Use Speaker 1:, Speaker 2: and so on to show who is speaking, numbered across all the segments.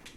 Speaker 1: uh,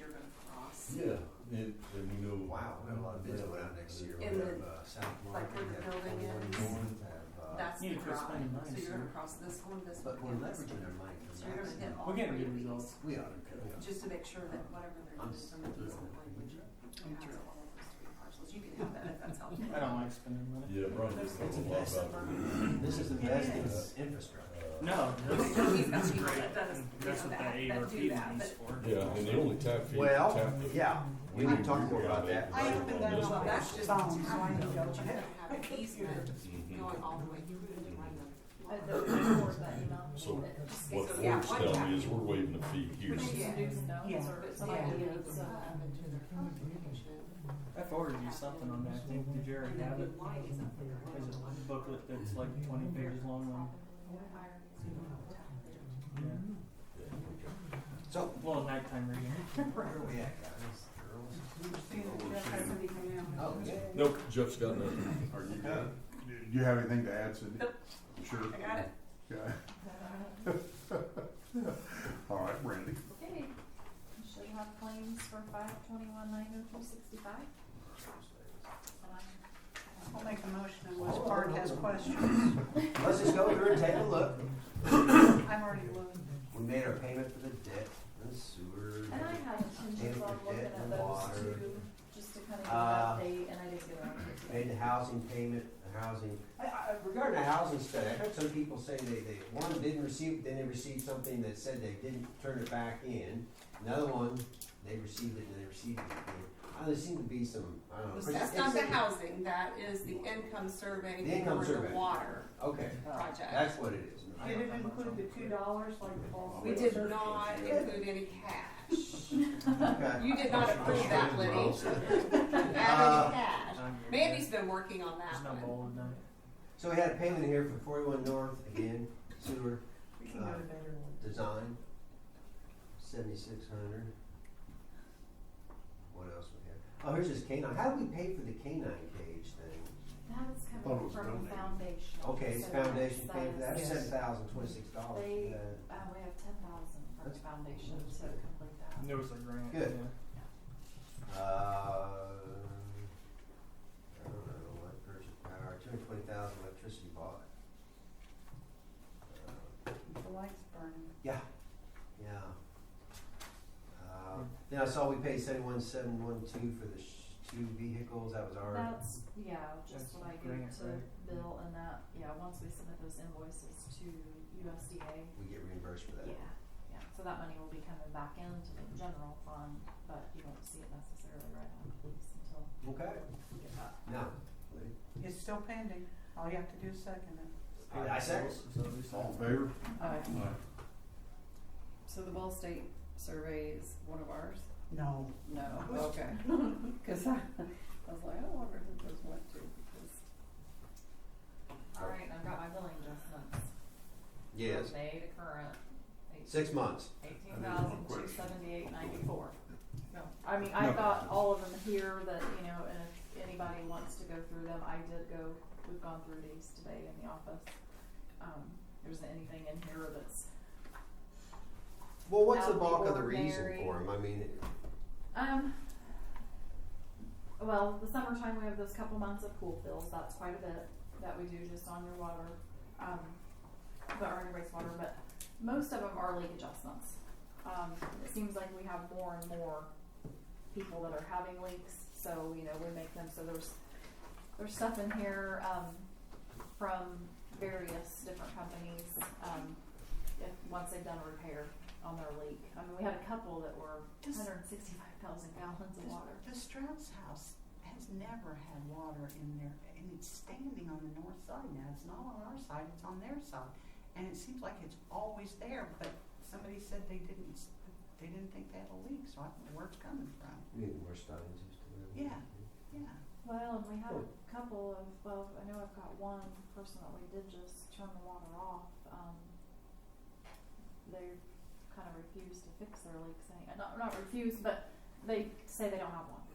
Speaker 2: across this one, this one,
Speaker 1: But we're
Speaker 2: and this
Speaker 1: leveraging
Speaker 2: one.
Speaker 1: our money.
Speaker 2: So you're gonna hit all
Speaker 3: We're
Speaker 2: three
Speaker 3: getting good
Speaker 2: of these,
Speaker 3: results.
Speaker 1: We ought to.
Speaker 2: just to make sure that whatever they're
Speaker 1: I'm
Speaker 2: doing, some of these are going to pass
Speaker 3: sure.
Speaker 2: all of those three parcels. You can have that if that's helpful.
Speaker 3: I don't like spending money.
Speaker 4: Yeah, Brian, you
Speaker 1: It's
Speaker 4: know a lot
Speaker 1: invested.
Speaker 4: about Uh,
Speaker 1: This is the
Speaker 2: It
Speaker 1: best
Speaker 4: is.
Speaker 1: in infrastructure.
Speaker 4: the-
Speaker 3: No,
Speaker 2: He's got
Speaker 3: that's, that's
Speaker 2: people
Speaker 3: great.
Speaker 2: that does, you
Speaker 3: That's
Speaker 2: know,
Speaker 3: what
Speaker 2: that-
Speaker 3: the
Speaker 2: that
Speaker 3: ARP
Speaker 2: do that,
Speaker 3: money's
Speaker 2: but-
Speaker 3: for.
Speaker 4: Yeah, and the only tap fee.
Speaker 1: Well,
Speaker 4: tap fee-
Speaker 1: yeah, we
Speaker 4: we
Speaker 1: need to talk
Speaker 4: agree
Speaker 1: more about
Speaker 4: on
Speaker 1: that.
Speaker 2: I
Speaker 4: but
Speaker 2: opened
Speaker 4: on
Speaker 2: that
Speaker 4: this
Speaker 2: up,
Speaker 4: one-
Speaker 2: that's just
Speaker 5: Phones,
Speaker 2: town,
Speaker 5: mine,
Speaker 2: you have to
Speaker 5: don't you?
Speaker 2: have an easement
Speaker 1: Mm-hmm.
Speaker 2: going all the way through it and running.
Speaker 6: At the report button on
Speaker 4: So
Speaker 6: it.
Speaker 4: What
Speaker 2: So,
Speaker 4: it
Speaker 2: yeah,
Speaker 4: works
Speaker 2: one
Speaker 4: tell
Speaker 2: tap.
Speaker 4: me is we're waiving the fee here.
Speaker 6: Which is new
Speaker 5: Yeah.
Speaker 6: stones or somebody needs, uh,
Speaker 3: I forwarded you something on that. I think did you already have it? There's a booklet that's like 20 pages long. On, yeah.
Speaker 1: So,
Speaker 3: Well, nighttime reading.
Speaker 1: where are we at, guys? Girls? Oh, yeah.
Speaker 4: Nope, Jeff's got nothing.
Speaker 7: Are you done? Do you have anything to add, Cindy?
Speaker 2: Nope.
Speaker 7: Sure.
Speaker 2: I got it.
Speaker 7: Okay. All right, Randy.
Speaker 6: Okay, should have claims for five twenty-one nine oh two sixty-five.
Speaker 5: I'll make a motion unless Bart has questions.
Speaker 1: Let's just go through and take a look.
Speaker 5: I'm already looking.
Speaker 1: We made our payment for the debt, the sewer.
Speaker 6: And I had intentions on looking at those two, just to kind of get
Speaker 1: Uh,
Speaker 6: an update, and I didn't get around to it.
Speaker 1: Made the housing payment, the housing, I, I, regarding the housing study, I heard some people say they, they, one didn't receive, then they received something that said they didn't turn it back in. Another one, they received it and they received it again. Uh, there seemed to be some, I don't know.
Speaker 2: That's not the housing, that is the income
Speaker 1: The
Speaker 2: survey
Speaker 1: income
Speaker 2: for the
Speaker 1: survey.
Speaker 2: water
Speaker 1: Okay,
Speaker 2: project.
Speaker 1: that's what it is.
Speaker 5: Did it include the two dollars like the ball?
Speaker 2: We did not include any cash.
Speaker 1: Okay.
Speaker 2: You did not approve that, Liddy. Add
Speaker 1: Uh,
Speaker 2: any cash. Mandy's been working on
Speaker 3: There's
Speaker 2: that
Speaker 3: no
Speaker 2: one.
Speaker 3: bold done.
Speaker 1: So we had a payment here for forty-one north, again, sewer
Speaker 5: We can go to better ones.
Speaker 1: design, seventy-six hundred. What else we have? Oh, here's this canine, how do we pay for the canine cage thing?
Speaker 6: That's
Speaker 7: Thought it
Speaker 6: coming
Speaker 7: was
Speaker 6: from
Speaker 7: donated.
Speaker 6: foundation.
Speaker 1: Okay, it's
Speaker 6: so that's
Speaker 1: foundation paying for that,
Speaker 6: the-
Speaker 5: Yes.
Speaker 1: seven thousand twenty-six dollars.
Speaker 6: They, uh, we have ten thousand from
Speaker 1: That's-
Speaker 6: foundation to complete that.
Speaker 3: There was a grant.
Speaker 1: Good.
Speaker 3: Yeah.
Speaker 1: Uh, I don't know, what purchase power, two hundred twenty thousand electricity bought. Uh,
Speaker 5: The lights burning.
Speaker 1: Yeah, yeah. Uh, then I saw we paid seventy-one, seven, one, two for the sh- two vehicles, that was our,
Speaker 6: That's, yeah, just
Speaker 3: That's
Speaker 6: what I
Speaker 3: grant,
Speaker 6: gave to
Speaker 3: right?
Speaker 6: Bill and that, yeah, once we submit those invoices to USDA,
Speaker 1: we get reimbursed for that.
Speaker 6: yeah, yeah, so that money will be coming back into the general fund, but you won't see it necessarily right on release until
Speaker 1: Okay.
Speaker 6: we get that.
Speaker 1: No.
Speaker 5: It's still pending. All you have to do is second it.
Speaker 1: I, I said,
Speaker 3: So we said-
Speaker 7: All in favor?
Speaker 8: So the Ball State survey is one of ours?
Speaker 5: No.
Speaker 8: No, okay. Cause I, I was like, I wonder who those went to, because
Speaker 6: Alright, and I've got my billing adjustments.
Speaker 1: yes,
Speaker 6: From May to current,
Speaker 1: six months.
Speaker 6: eighteen
Speaker 7: one
Speaker 6: thousand two
Speaker 7: question.
Speaker 6: seventy-eight ninety-four. No, I mean, I've
Speaker 7: No.
Speaker 6: got all of them here that, you know, and if anybody wants to go through them, I did go, we've gone through these today in the office. Um, there isn't anything in here that's
Speaker 1: Well, what's the
Speaker 6: Out of the
Speaker 1: bulk of the reason
Speaker 6: ordinary.
Speaker 1: for them? I mean, it-
Speaker 6: Um, well, the summertime, we have those couple months of pool fills, that's quite a bit that we do just on your water, um, but or on your wastewater, but most of them are leak adjustments. Um, it seems like we have more and more people that are having leaks, so, you know, we make them, so there's, there's stuff in here, um, from various different companies, um, if, once they've done a repair on their leak. I mean, we had a couple that were
Speaker 5: Does-
Speaker 6: hundred and sixty-five thousand gallons of water.
Speaker 5: The Strauss house has never had water in there and it's standing on the north side now. It's not on our side, it's on their side. And it seems like it's always there, but somebody said they didn't, s- they didn't think they had a leak, so I don't know where it's coming from.
Speaker 1: we need more Steins. just to-
Speaker 5: Yeah. Yeah.
Speaker 6: Well, and we had a couple of, well, I know I've got one person that we did just turn the water off, um, they kind of refused to fix their leak, saying, not, not refused, but they say they don't have one.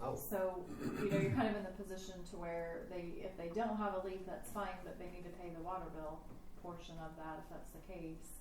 Speaker 1: Oh,
Speaker 6: So, you know, you're kind of in the position to where they, if they don't have a leak, that's fine, but they need to pay the water bill portion of that if that's the case.